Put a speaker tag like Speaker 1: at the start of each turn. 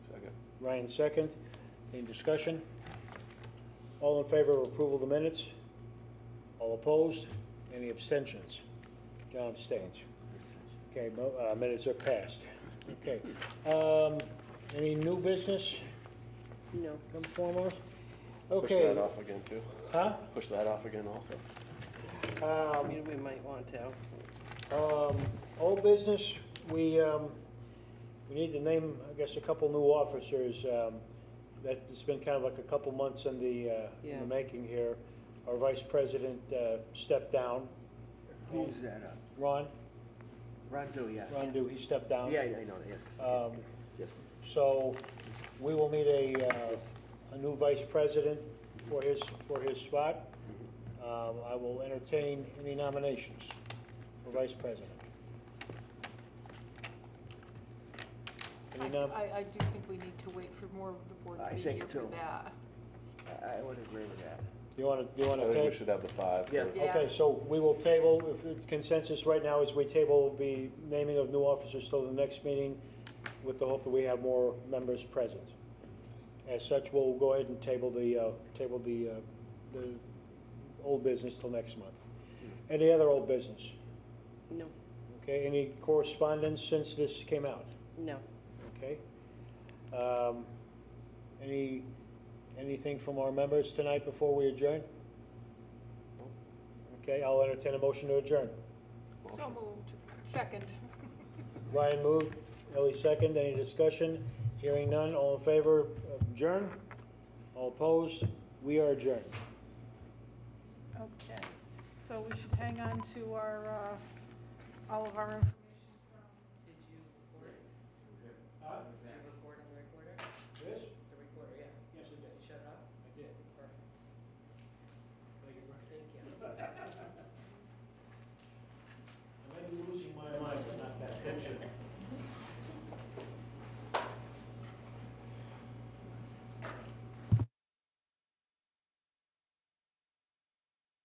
Speaker 1: Ryan second. Any discussion? All in favor of approval of the minutes? All opposed? Any abstentions? John abstains. Okay, mo- uh, minutes are passed. Okay. Um, Any new business
Speaker 2: No.
Speaker 1: come foremost?
Speaker 3: Push that
Speaker 1: Okay,
Speaker 3: off again too.
Speaker 1: huh?
Speaker 3: Push that off again also.
Speaker 2: I
Speaker 1: Um,
Speaker 2: mean, we might want to.
Speaker 1: Um, old business, we, um, we need to name, I guess, a couple new officers. Um, that, it's been kind of like a couple months in the, uh, in
Speaker 2: Yeah.
Speaker 1: the making here. Our vice president, uh, stepped down.
Speaker 4: Who's that, uh,
Speaker 1: Ron,
Speaker 4: Rondo, yeah.
Speaker 1: Ron Dew, he stepped
Speaker 4: Yeah,
Speaker 1: down.
Speaker 4: yeah, I know, yes.
Speaker 1: Um,
Speaker 4: Yes.
Speaker 1: So we will need a, uh, a new vice president for his, for his spot. Um, I will entertain any nominations for vice president.
Speaker 5: I,
Speaker 1: Any nom,
Speaker 5: I- I do think we need to wait for more of the board
Speaker 4: um, I
Speaker 5: to be
Speaker 4: think
Speaker 5: here for
Speaker 4: too.
Speaker 5: that.
Speaker 4: I I would agree with that.
Speaker 1: you wanna, you
Speaker 3: I
Speaker 1: wanna
Speaker 3: think we
Speaker 1: take?
Speaker 3: should have the five. for-
Speaker 4: Yeah.
Speaker 5: Yeah.
Speaker 1: Okay, so we will table, if the consensus right now is we table the naming of new officers till the next meeting with the hope that we have more members present. As such, we'll go ahead and table the, uh, table the, uh, the old business till next month. Any other old business?
Speaker 2: No,
Speaker 1: Okay, any correspondence since this came out?
Speaker 2: no.
Speaker 1: Okay. Um, Any, anything from our members tonight before we adjourn? Okay, I'll entertain a motion to adjourn.
Speaker 5: So moved. Second.
Speaker 1: Ryan moved, Ellie second, any discussion? Hearing none, all in favor, adjourn? All opposed? We are adjourned.
Speaker 6: Okay, so we should hang on to our, uh, all of our information